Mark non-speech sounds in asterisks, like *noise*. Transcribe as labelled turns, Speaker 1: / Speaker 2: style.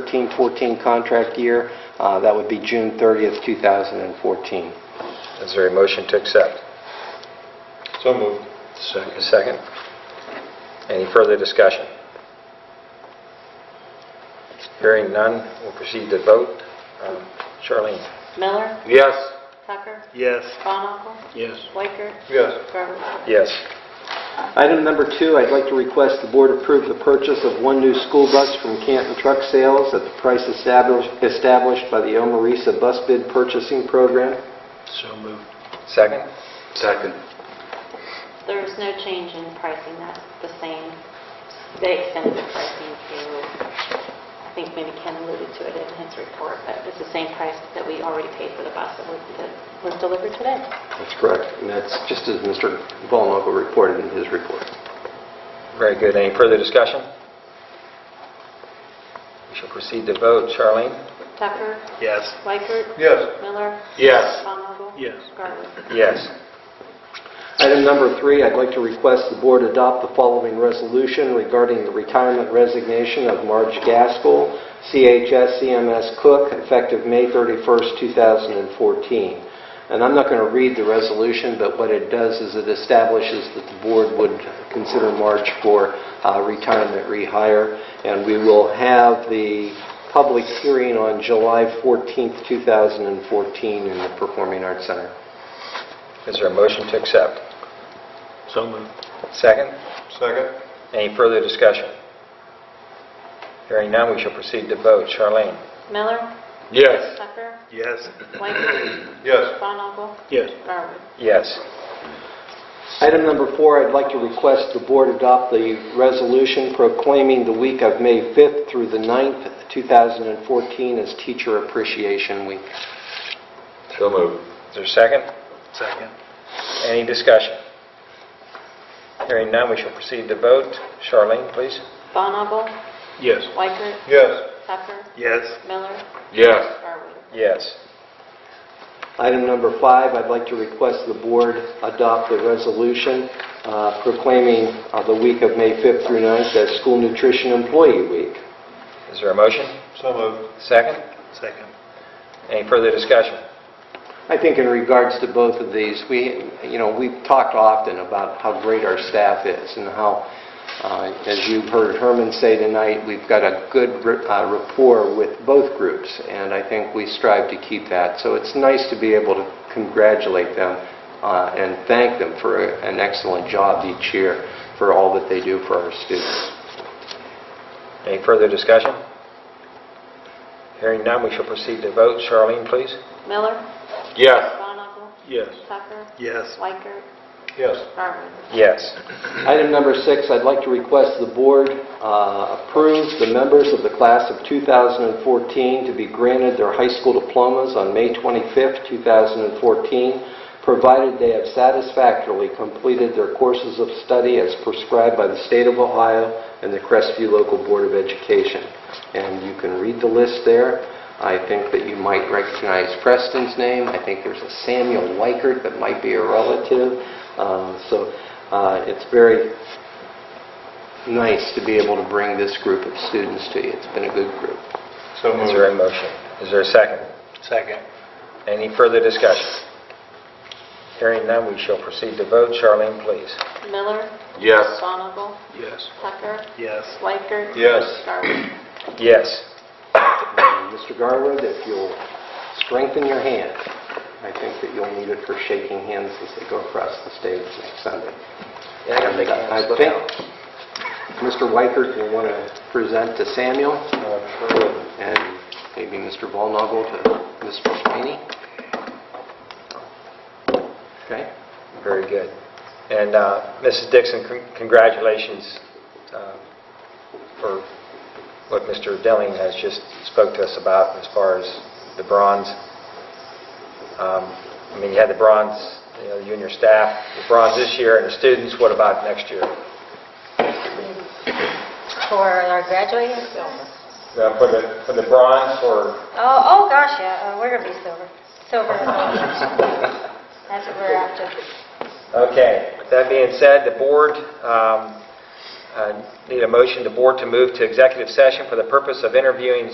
Speaker 1: 2013-14 contract year. Uh, That would be June 30th, 2014.
Speaker 2: Is there a motion to accept?
Speaker 3: So moved.
Speaker 2: Second. Second. Any further discussion? Hearing none, we'll proceed to vote. Um, Charlene?
Speaker 4: Miller,
Speaker 2: Yes.
Speaker 4: Tucker,
Speaker 3: Yes.
Speaker 4: Bonnagle,
Speaker 3: Yes.
Speaker 4: Waker,
Speaker 3: Yes.
Speaker 4: Robertson.
Speaker 2: Yes.
Speaker 1: Item number two, I'd like to request the board approve the purchase of one new school bus from Canton Truck Sales at the price established established by the Omarisa Bus Bid Purchasing Program.
Speaker 3: So moved.
Speaker 2: Second?
Speaker 3: Second.
Speaker 4: There was no change in pricing, that's the same. They extended the pricing to, I think maybe Ken alluded to it in his report, but it's the same price that we already paid for the bus that was that was delivered today.
Speaker 1: That's correct. And that's just as Mr. Vollenhofer reported in his report.
Speaker 2: Very good. Any further discussion? We shall proceed to vote. Charlene?
Speaker 4: Tucker,
Speaker 3: Yes.
Speaker 4: Waker,
Speaker 3: Yes.
Speaker 4: Miller,
Speaker 2: Yes.
Speaker 4: Bonnagle.
Speaker 3: Yes.
Speaker 4: Garwood.
Speaker 2: Yes.
Speaker 1: Item number three, I'd like to request the board adopt the following resolution regarding the retirement resignation of Marge Gaskell, CHS CMS Cook, effective May 31st, 2014. And I'm not going to read the resolution, but what it does is it establishes that the board would consider Marge for uh, retirement rehire, and we will have the public hearing on July 14th, 2014, in the Performing Arts Center.
Speaker 2: Is there a motion to accept?
Speaker 3: So moved.
Speaker 2: Second?
Speaker 3: Second.
Speaker 2: Any further discussion? Hearing none, we shall proceed to vote. Charlene?
Speaker 4: Miller,
Speaker 3: Yes.
Speaker 4: Tucker,
Speaker 3: Yes.
Speaker 4: Waker,
Speaker 3: Yes.
Speaker 4: Bonnagle,
Speaker 3: Yes.
Speaker 4: Garwood.
Speaker 2: Yes.
Speaker 1: Item number four, I'd like to request the board adopt the resolution proclaiming the week of May 5th through the 9th, 2014 as Teacher Appreciation Week.
Speaker 2: So moved. Is there a second?
Speaker 3: Second.
Speaker 2: Any discussion? Hearing none, we shall proceed to vote. Charlene, please.
Speaker 4: Bonnagle,
Speaker 3: Yes.
Speaker 4: Waker,
Speaker 3: Yes.
Speaker 4: Tucker,
Speaker 3: Yes.
Speaker 4: Miller,
Speaker 3: Yes.
Speaker 4: Garwood.
Speaker 2: Yes.
Speaker 1: Item number five, I'd like to request the board adopt the resolution uh, proclaiming uh, the week of May 5th through 9th as School Nutrition Employee Week.
Speaker 2: Is there a motion?
Speaker 3: So moved.
Speaker 2: Second?
Speaker 3: Second.
Speaker 2: Any further discussion?
Speaker 1: I think in regards to both of these, we, you know, we've talked often about how great our staff is and how, uh, as you heard Herman say tonight, we've got a good r- uh, rapport with both groups, and I think we strive to keep that. So it's nice to be able to congratulate them uh, and thank them for a- an excellent job each year for all that they do for our students.
Speaker 2: Any further discussion? Hearing none, we shall proceed to vote. Charlene, please.
Speaker 4: Miller,
Speaker 3: Yes.
Speaker 4: Bonnagle,
Speaker 3: Yes.
Speaker 4: Tucker,
Speaker 3: Yes.
Speaker 4: Swiker,
Speaker 3: Yes.
Speaker 4: Garwood.
Speaker 2: Yes.
Speaker 1: Item number six, I'd like to request the board uh, approve the members of the class of 2014 to be granted their high school diplomas on May 25th, 2014, provided they have satisfactorily completed their courses of study as prescribed by the state of Ohio and the Crestview Local Board of Education. And you can read the list there. I think that you might recognize Preston's name. I think there's a Samuel Weichert that might be a relative. Uh, So uh, it's very nice to be able to bring this group of students to you. It's been a good group.
Speaker 3: So
Speaker 2: Is there a motion? Is there a second?
Speaker 3: Second.
Speaker 2: Any further discussion? Hearing none, we shall proceed to vote. Charlene, please.
Speaker 4: Miller,
Speaker 3: Yes.
Speaker 4: Bonnagle,
Speaker 3: Yes.
Speaker 4: Tucker,
Speaker 3: Yes.
Speaker 4: Swiker.
Speaker 3: Yes.
Speaker 4: Garwood.
Speaker 2: Yes.
Speaker 1: And Mr. Garwood, if you'll strengthen your hand, I think that you'll need it for shaking hands as they go across the stage next Sunday.
Speaker 2: Yeah, I gotta make
Speaker 1: And uh,
Speaker 2: hands. Look
Speaker 1: think
Speaker 2: out.
Speaker 1: Mr. Weichert, you want to present to Samuel,
Speaker 2: Uh,
Speaker 1: and maybe Mr. Volnagel to Ms. Sweeney? Okay?
Speaker 2: Very good. And uh, Mrs. Dixon, con- congratulations uh, for what Mr. Delling has just spoke to us about as far as the bronze. Um, I mean, you had the bronze, you know, you and your staff, the bronze this year, and the students, what about next year?
Speaker 5: For our graduating silver.
Speaker 2: Now, For the for the bronze, or,
Speaker 5: Oh, oh gosh, yeah, uh, we're gonna be silver. *laughs* Silver is all. That's what we're after.
Speaker 2: okay, that being said, the board um, Uh, Need a motion, the board to move to executive session for the purpose of interviewing